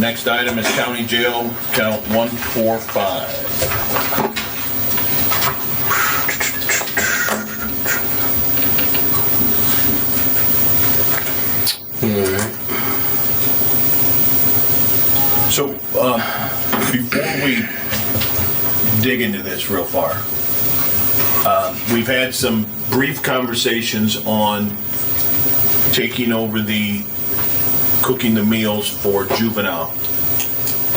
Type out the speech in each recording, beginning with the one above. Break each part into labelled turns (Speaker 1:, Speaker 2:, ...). Speaker 1: Next item is county jail, count 145.
Speaker 2: So, um, before we dig into this real far, um, we've had some brief conversations on taking over the cooking the meals for juvenile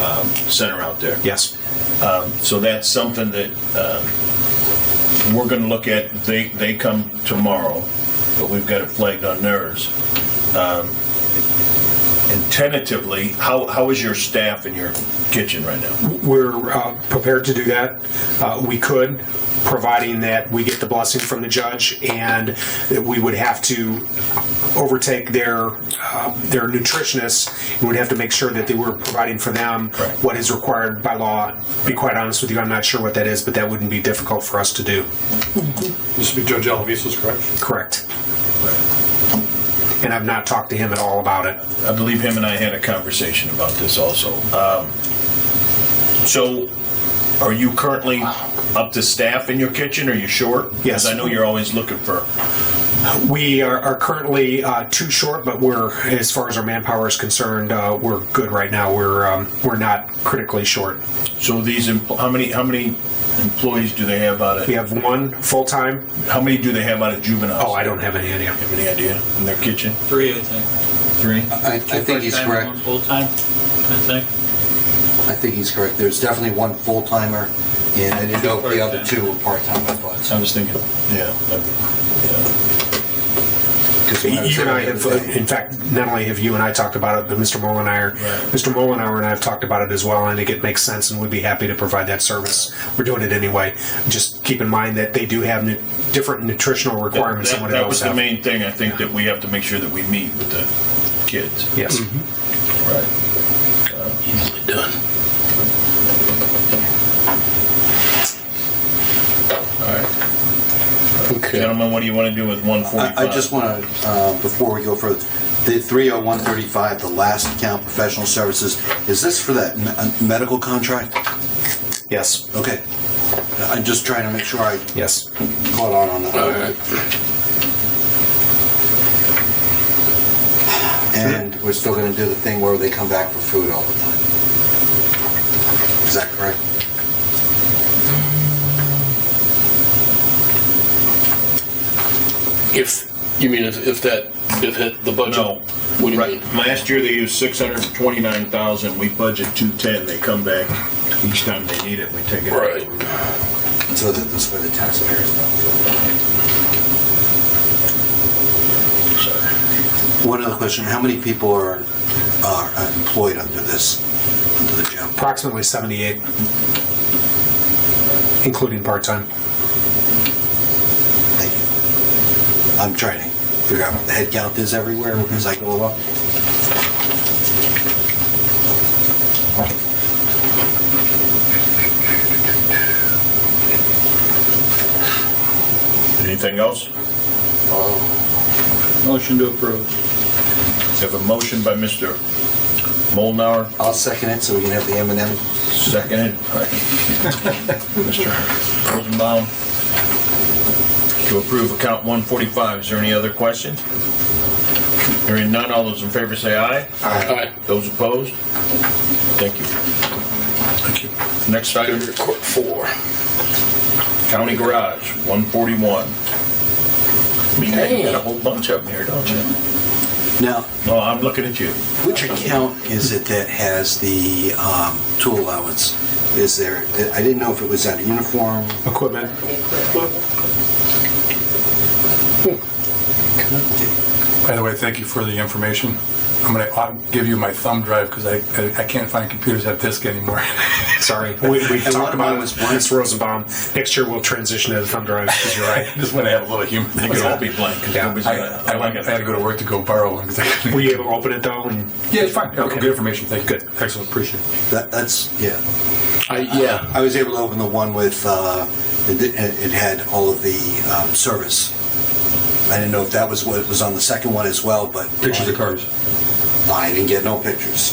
Speaker 2: um, center out there.
Speaker 3: Yes.
Speaker 2: So that's something that um, we're going to look at. They they come tomorrow, but we've got it flagged on theirs. Um, and tentatively, how, how is your staff in your kitchen right now?
Speaker 3: We're uh, prepared to do that. Uh, We could, providing that we get the blessing from the judge and that we would have to overtake their, uh, their nutritionists. We would have to make sure that they were providing for them
Speaker 2: Correct.
Speaker 3: what is required by law. Be quite honest with you, I'm not sure what that is, but that wouldn't be difficult for us to do.
Speaker 4: This would be Judge Alvisa's, correct?
Speaker 3: Correct. And I've not talked to him at all about it.
Speaker 2: I believe him and I had a conversation about this also. Um, so, are you currently up to staff in your kitchen? Are you short? 'Cause
Speaker 3: Yes.
Speaker 2: I know you're always looking for.
Speaker 3: We are, are currently uh, too short, but we're as far as our manpower is concerned, uh, we're good right now. We're um, we're not critically short.
Speaker 2: So these empl- how many how many employees do they have out
Speaker 3: We
Speaker 2: of?
Speaker 3: have one full time.
Speaker 2: How many do they have out of juveniles?
Speaker 3: Oh, I don't have any idea.
Speaker 2: Have any idea in their kitchen?
Speaker 5: Three, I think.
Speaker 2: Three.
Speaker 6: I, I think he's
Speaker 5: Part-time and
Speaker 6: correct.
Speaker 5: one Full-time, I think.
Speaker 6: I think he's correct. There's definitely one full timer, and I didn't know if the other two were part time. I thought.
Speaker 2: I was thinking. Yeah. that-
Speaker 6: Because when was
Speaker 3: You and I
Speaker 6: there
Speaker 3: have,
Speaker 6: the other day-
Speaker 3: in fact, not only have you and I talked about it, but Mr. Mollenauer,
Speaker 2: Right.
Speaker 3: Mr. Mollenauer and I have talked about it as well. And I think it makes sense, and we'd be happy to provide that service. We're doing it anyway. Just keep in mind that they do have nu- different nutritional
Speaker 2: That,
Speaker 3: requirements than
Speaker 2: that,
Speaker 3: what
Speaker 2: that
Speaker 3: else
Speaker 2: was the
Speaker 3: have.
Speaker 2: main thing I think that we have to make sure that we meet with the kids.
Speaker 3: Yes.
Speaker 2: Mm-hmm. Right.
Speaker 1: Easily done.
Speaker 6: Okay.
Speaker 2: Gentlemen, what do you want to do with one forty-five?
Speaker 6: I, I just want to, before we go further, the 30135, the last account, professional services, is this for that me- uh, medical contract?
Speaker 3: Yes.
Speaker 6: Okay. I'm just trying to make sure I
Speaker 3: Yes.
Speaker 6: caught on on that.
Speaker 4: All right.
Speaker 6: And we're still going to do the thing where they come back for food all the time. Is that correct?
Speaker 4: If, you mean if, if that, if hit the budget?
Speaker 2: No.
Speaker 4: What do you
Speaker 2: Right.
Speaker 4: mean?
Speaker 2: Last year they used six hundred twenty-nine thousand. We budget two ten. They come back each time they need it. We take it.
Speaker 4: Right.
Speaker 6: So that this way the taxpayers don't feel. One other question, how many people are, are uh, employed under this, under the job?
Speaker 3: approximately 78, including part time.
Speaker 6: Thank you. I'm trying to figure out what the head count is everywhere as I go along.
Speaker 2: Anything else?
Speaker 5: Motion to approve.
Speaker 2: We have a motion by Mr. Molnauer,
Speaker 6: I'll second it so we can have the M and M.
Speaker 2: Seconded by Mr. Rosenbaum to approve account 145. Is there any other question? Hearing none, all those in favor say aye.
Speaker 4: Aye.
Speaker 2: Those opposed? Thank you. Thank you. Next item,
Speaker 4: Court four.
Speaker 2: county garage, 141. I mean, you got a whole bunch of them here, don't you?
Speaker 6: Now,
Speaker 2: No, I'm looking at you.
Speaker 6: which account is it that has the um, tool allowance? Is there, I didn't know if it was out of uniform.
Speaker 3: Equipment,
Speaker 7: By the way, thank you for the information. I'm going to give you my thumb drive because I, I can't find computers that have disk anymore.
Speaker 3: sorry. We, we
Speaker 6: one
Speaker 3: talked
Speaker 6: of
Speaker 3: about
Speaker 6: mine
Speaker 3: it.
Speaker 6: was one-
Speaker 3: Mr. Rosenbaum. Next year we'll transition to the thumb drive because you're right.
Speaker 7: Just want to have a little humor.
Speaker 2: They could all be blank because
Speaker 3: Yeah,
Speaker 2: nobody's
Speaker 7: I,
Speaker 2: gonna.
Speaker 7: I, went, I had to go to work to go borrow one. 'cause I couldn't-
Speaker 3: Were you able to open it though? And
Speaker 7: yeah, it's fine. Okay.
Speaker 3: Okay.
Speaker 7: Good information. Thank you. Good. Excellent. Appreciate it.
Speaker 6: That, that's, yeah.
Speaker 4: I, yeah,
Speaker 6: I was able to open the one with, uh, it it had all of the um, service. I didn't know if that was what was on the second one as well, but.
Speaker 7: Pictures of cars.
Speaker 6: I didn't get no pictures.